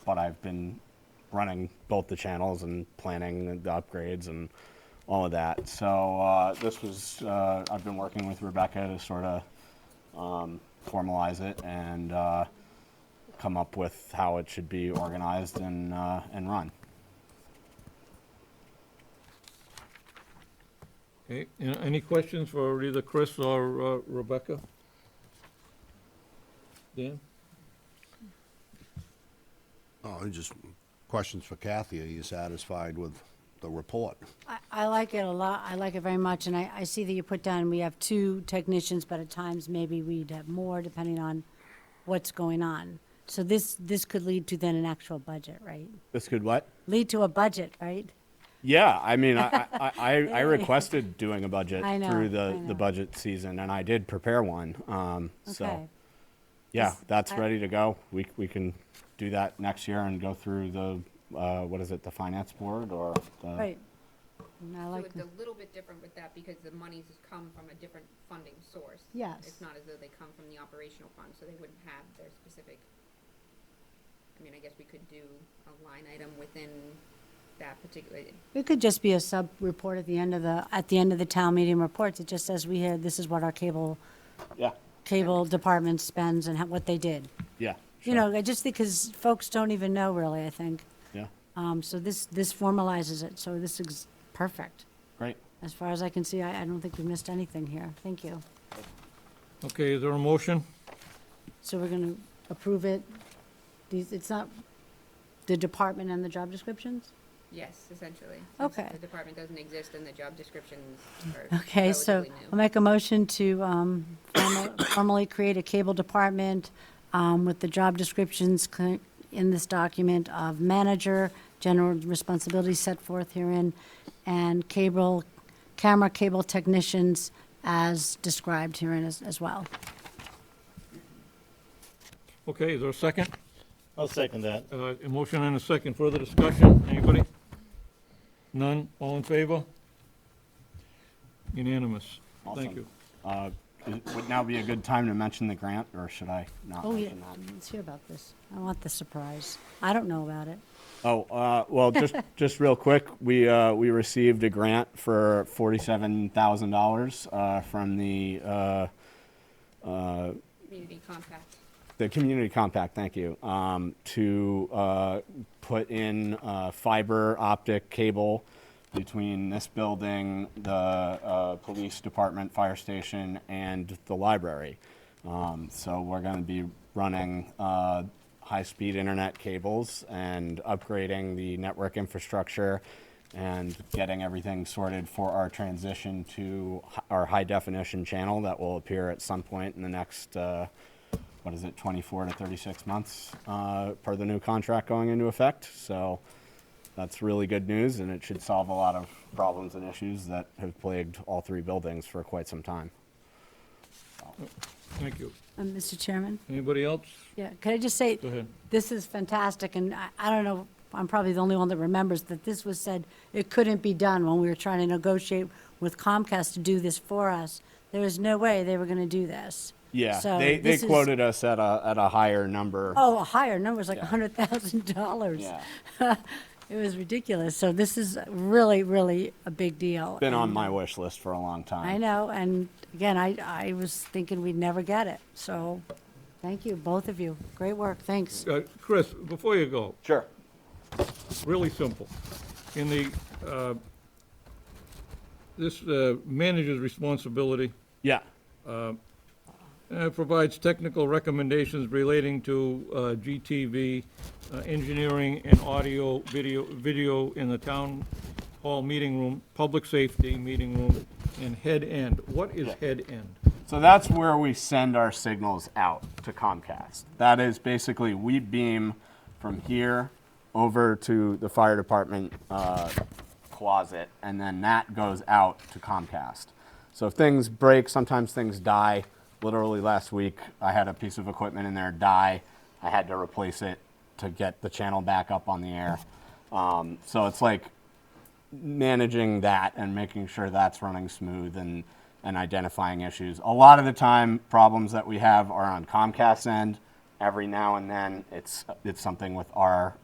but I've been running both the channels and planning the upgrades and all of that. So uh, this was uh, I've been working with Rebecca to sort of um, formalize it and uh, come up with how it should be organized and uh, and run. Okay, a- any questions for either Chris or uh, Rebecca? Dan? Oh, just questions for Kathy. Are you satisfied with the report? I, I like it a lot. I like it very much, and I, I see that you put down, we have two technicians, but at times maybe we'd have more depending on what's going on. So this, this could lead to then an actual budget, right? This could what? Lead to a budget, right? Yeah, I mean, I, I, I, I requested doing a budget I know, through the, I the know. budget season, and I did prepare one. Um, Okay. So, yeah, Is- that's I- ready to go. We, we can do that next year and go through the, uh, what is it, the finance board or the, Right. And I So like, it's a little bit different with that because the monies come from a different funding source. Yes. It's not as though they come from the operational fund, so they wouldn't have their specific, I mean, I guess we could do a line item within that particular, it could just be a sub-report at the end of the, at the end of the town meeting reports. It just says we had, this is what our cable, yeah, cable department spends and how- what they did. yeah. You sure, know, I just think, because folks don't even know really, I think. yeah, Um, so this, this formalizes it, so this is perfect. great. As far as I can see, I, I don't think we missed anything here. Thank you. Okay, is there a motion? So we're gonna approve it. These, it's not the department and the job descriptions? yes, essentially. since Okay. The department doesn't exist and the job descriptions are Okay, so relatively I'll new. make a motion to, um, formal- formally create a cable department, um, with the job descriptions cl- in this document of manager, general responsibilities set forth herein, and cable, camera cable technicians as described herein as, as well. Okay, is there a second? I'll second that. Uh, A motion and a second, further discussion, anybody? None, all in favor? Unanimous, thank Awesome. you. Uh, it would now be a good time to mention the grant, or should I not Oh, yeah, mention that? let's hear about this. I want the surprise. I don't know about it. Oh, uh, well, just, just real quick, we, uh, we received a grant for forty-seven thousand dollars, uh, from the, uh, Community compact. the community compact, thank you, um, to, uh, put in, uh, fiber optic cable between this building, the, uh, police department, fire station, and the library. Um, so we're gonna be running, uh, high-speed internet cables and upgrading the network infrastructure and getting everything sorted for our transition to hi- our high-definition channel that will appear at some point in the next, uh, what is it, 24 to 36 months uh, per the new contract going into effect. So that's really good news, and it should solve a lot of problems and issues that have plagued all three buildings for quite some time. Thank you. Um, Mr. Chairman? Anybody else? Yeah, could I just say, Go ahead. this is fantastic, and I, I don't know, I'm probably the only one that remembers that this was said, it couldn't be done when we were trying to negotiate with Comcast to do this for us. There was no way they were gonna do this. Yeah, So they, they this is- quoted us at a, at a higher number. Oh, a higher number, it's like Yeah. hundred thousand dollars. Yeah, It was ridiculous, so this is really, really a big deal. been on and- my wish list for a long time. Um, I know, and again, I, I was thinking we'd never get it, so, thank you, both of you. Great work, thanks. Uh, Chris, before you go, Sure. really simple. In the, uh, this uh, manager's responsibility, Yeah, Uh, provides technical recommendations relating to uh, GTV, uh, engineering and audio, video, video in the town hall meeting room, public safety meeting room, and head end. What is head end? So that's where we send our signals out to Comcast. That is basically we beam from here over to the fire department uh, closet, and then that goes out to Comcast. So if things break, sometimes things die. Literally last week, I had a piece of equipment in there die. I had to replace it to get the channel back up on the air. Um, so it's like managing that and making sure that's running smooth and, and identifying issues. A lot of the time, problems that we have are on Comcast end every now and then, it's, it's something with our